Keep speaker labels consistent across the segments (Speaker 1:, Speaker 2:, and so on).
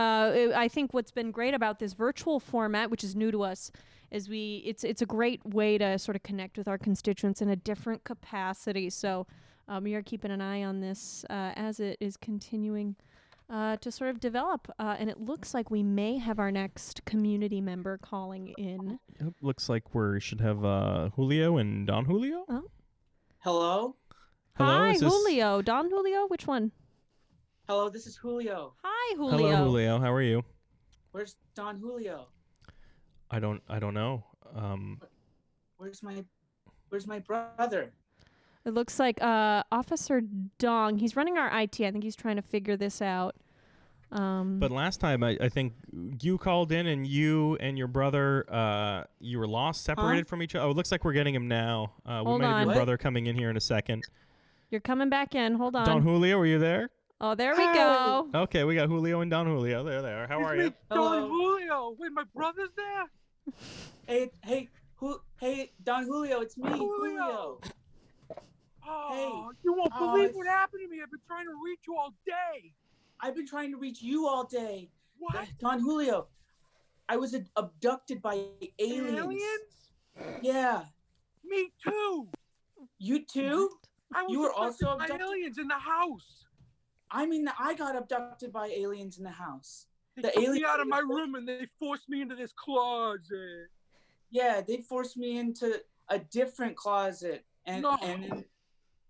Speaker 1: know, Uh, it, I think what's been great about this virtual format, which is new to us, is we it's it's a great way to sort of connect with our constituents in a different capacity. So um, we are keeping an eye on this uh, as it is continuing. Uh, to sort of develop, uh, and it looks like we may have our next community member calling in.
Speaker 2: Yep, looks like we should have uh, Julio and Don Julio.
Speaker 1: Oh.
Speaker 3: Hello?
Speaker 2: Hello,
Speaker 1: Hi,
Speaker 2: is this-
Speaker 1: Julio. Don Julio, which one?
Speaker 3: Hello, this is Julio.
Speaker 1: Hi, Julio.
Speaker 2: Hello, Julio. How are you?
Speaker 3: Where's Don Julio?
Speaker 2: I don't. I don't know. Um,
Speaker 3: Where's my Where's my brother?
Speaker 1: It looks like uh, Officer Dong. He's running our IT. I think he's trying to figure this out. Um,
Speaker 2: but last time, I, I think you called in, and you and your brother, uh, you were lost, separated from each other. Oh, it looks like we're getting him now. Uh, we
Speaker 1: Hold
Speaker 2: might have
Speaker 1: on.
Speaker 2: your
Speaker 3: What?
Speaker 2: brother coming in here in a second.
Speaker 1: you're coming back in. Hold on.
Speaker 2: Don Julio, were you there?
Speaker 1: oh, there we
Speaker 4: Hi.
Speaker 1: go.
Speaker 2: Okay, we got Julio and Don Julio. There they are. How are you?
Speaker 3: Hello.
Speaker 4: Don Julio. Wait, my brother's there.
Speaker 3: Hey, hey, who? Hey, Don Julio, it's me,
Speaker 4: Julio.
Speaker 3: Julio.
Speaker 4: Oh, you won't
Speaker 3: Oh,
Speaker 4: believe
Speaker 3: it's-
Speaker 4: what happened to me. I've been trying to reach you all day.
Speaker 3: I've been trying to reach you all day,
Speaker 4: What?
Speaker 3: Don Julio. I was ad- abducted by aliens.
Speaker 4: Aliens?
Speaker 3: Yeah,
Speaker 4: Me too.
Speaker 3: you too.
Speaker 4: I was
Speaker 3: You were
Speaker 4: abducted
Speaker 3: also
Speaker 4: by
Speaker 3: abducted?
Speaker 4: aliens in the house.
Speaker 3: I mean, I got abducted by aliens in the house.
Speaker 4: They
Speaker 3: The
Speaker 4: took me
Speaker 3: aliens-
Speaker 4: out of my room and they forced me into this closet.
Speaker 3: Yeah, they forced me into a different closet, and
Speaker 4: No.
Speaker 3: and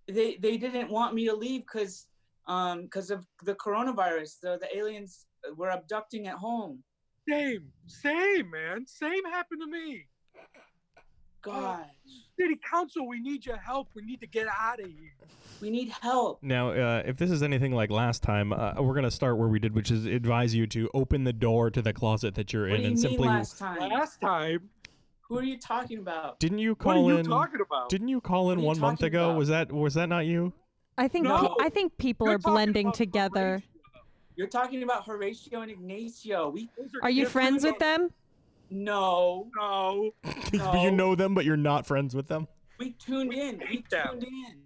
Speaker 3: they they didn't want me to leave because um because of the coronavirus. The the aliens were abducting at home.
Speaker 4: Same, same, man. Same happened to me.
Speaker 3: God,
Speaker 4: City Council, we need your help. We need to get out of here.
Speaker 3: we need help.
Speaker 2: Now, uh, if this is anything like last time, uh, we're gonna start where we did, which is advise you to open the door to the closet that you're in,
Speaker 3: What do you mean
Speaker 2: and simply.
Speaker 3: last time?
Speaker 4: Last time,
Speaker 3: Who are you talking about?
Speaker 2: Didn't you
Speaker 4: what
Speaker 2: call
Speaker 4: are you
Speaker 2: in?
Speaker 4: talking about?
Speaker 2: Didn't you call in
Speaker 3: What are you
Speaker 2: one month
Speaker 3: talking
Speaker 2: ago?
Speaker 3: about?
Speaker 2: Was that was that not you?
Speaker 1: I think
Speaker 4: No.
Speaker 1: pe- I think people
Speaker 4: You're
Speaker 1: are
Speaker 4: talking
Speaker 1: blending
Speaker 4: about
Speaker 1: together.
Speaker 3: You're talking about Horatio and Ignacio. We
Speaker 4: Those
Speaker 1: Are you
Speaker 4: different
Speaker 1: friends with them?
Speaker 3: no,
Speaker 4: No.
Speaker 3: No.
Speaker 2: you know them, but you're not friends with them.
Speaker 3: we tuned in. We
Speaker 4: hate them.
Speaker 3: tuned in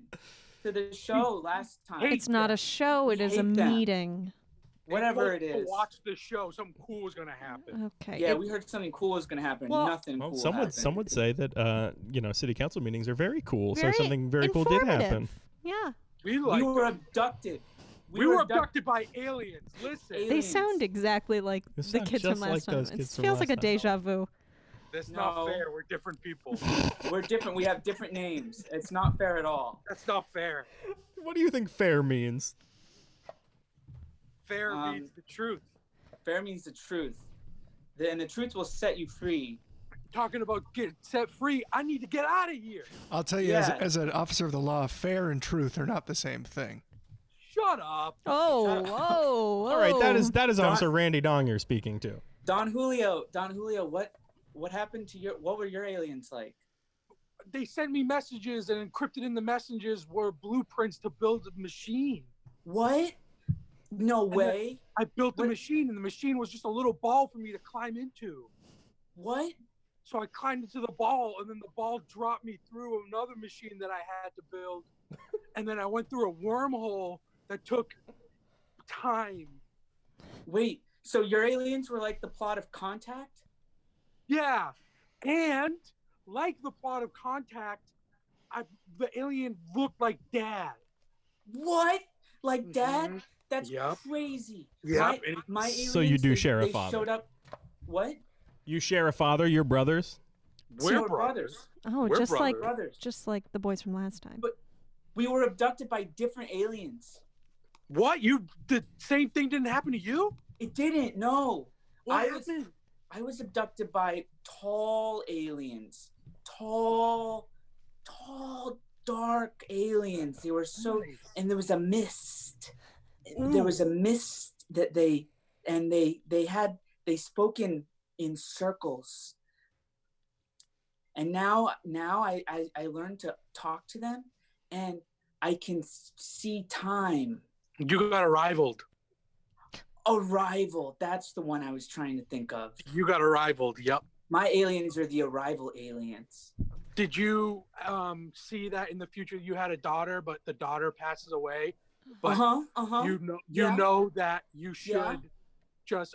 Speaker 3: to the show last time.
Speaker 4: Hate
Speaker 1: It's not a show. It
Speaker 3: We
Speaker 1: is a
Speaker 3: hate them.
Speaker 1: meeting.
Speaker 3: Whatever it
Speaker 4: They both
Speaker 3: is.
Speaker 4: Watch the show. Something cool is gonna happen.
Speaker 1: Okay.
Speaker 3: Yeah,
Speaker 1: It-
Speaker 3: we heard something cool was gonna happen.
Speaker 4: Well-
Speaker 3: Nothing
Speaker 2: Well,
Speaker 3: cool.
Speaker 2: some would
Speaker 3: happened.
Speaker 2: some would say that uh, you know city council meetings are very cool.
Speaker 1: Very
Speaker 2: so something very cool did happen.
Speaker 1: informative. Yeah.
Speaker 4: We like.
Speaker 3: we were abducted.
Speaker 4: we, were abducted by aliens. Listen,
Speaker 3: Aliens.
Speaker 1: They sound exactly like
Speaker 2: They
Speaker 1: the
Speaker 2: sound
Speaker 1: kids
Speaker 2: just
Speaker 1: from last
Speaker 2: like
Speaker 1: time.
Speaker 2: those
Speaker 1: It
Speaker 2: kids from
Speaker 1: feels like a
Speaker 2: last time.
Speaker 1: deja vu.
Speaker 4: that's not
Speaker 3: No.
Speaker 4: fair. We're different people.
Speaker 3: We're different. We have different names. It's not fair at all.
Speaker 4: that's not fair.
Speaker 2: What do you think fair means?
Speaker 4: Fair
Speaker 3: Um,
Speaker 4: means the truth.
Speaker 3: Fair means the truth. Then the truth will set you free.
Speaker 4: Talking about get set free. I need to get out of here.
Speaker 5: I'll tell you,
Speaker 3: Yeah.
Speaker 5: as, as an officer of the law, fair and truth are not the same thing.
Speaker 4: Shut up.
Speaker 1: Oh, whoa, whoa.
Speaker 2: All right, that is that is
Speaker 3: Don-
Speaker 2: Officer Randy Dong you're speaking to.
Speaker 3: Don Julio, Don Julio, what what happened to your what were your aliens like?
Speaker 4: They sent me messages, and encrypted in the messages were blueprints to build a machine.
Speaker 3: What? No way.
Speaker 4: I built the
Speaker 3: What-
Speaker 4: machine, and the machine was just a little ball for me to climb into.
Speaker 3: What?
Speaker 4: So I climbed into the ball, and then the ball dropped me through another machine that I had to build. and then I went through a wormhole that took time.
Speaker 3: Wait. So your aliens were like the plot of Contact?
Speaker 4: Yeah. And like the plot of Contact, I, the alien looked like dad.
Speaker 3: What? Like that?
Speaker 4: Mhm.
Speaker 3: That's
Speaker 4: Yep.
Speaker 3: crazy.
Speaker 4: Yep.
Speaker 3: My, my aliens,
Speaker 2: So you do
Speaker 3: they,
Speaker 2: share a
Speaker 3: they
Speaker 2: father.
Speaker 3: Showed up. What?
Speaker 2: You share a father, your brothers.
Speaker 3: So we're brothers.
Speaker 1: Oh,
Speaker 4: We're
Speaker 1: just like
Speaker 3: brothers.
Speaker 1: just like the boys from last time.
Speaker 3: But- We were abducted by different aliens.
Speaker 4: What? You the same thing didn't happen to you?
Speaker 3: It didn't. No,
Speaker 4: What
Speaker 3: I was-
Speaker 4: happened?
Speaker 3: I was abducted by tall aliens. Tall, tall, dark aliens. They were so,
Speaker 4: Mm.
Speaker 3: and there was a mist. There was a mist that they, and they, they had, they spoke in in circles. And now, now I, I, I learned to talk to them, and I can s- see time.
Speaker 4: you got arrived.
Speaker 3: Arrival. That's the one I was trying to think of.
Speaker 4: You got arrived. Yep.
Speaker 3: My aliens are the arrival aliens.
Speaker 4: Did you um, see that in the future you had a daughter, but the daughter passes away? But
Speaker 3: Uh huh. Uh huh.
Speaker 4: you know you
Speaker 3: yeah.
Speaker 4: know that you should
Speaker 3: Yeah.
Speaker 4: just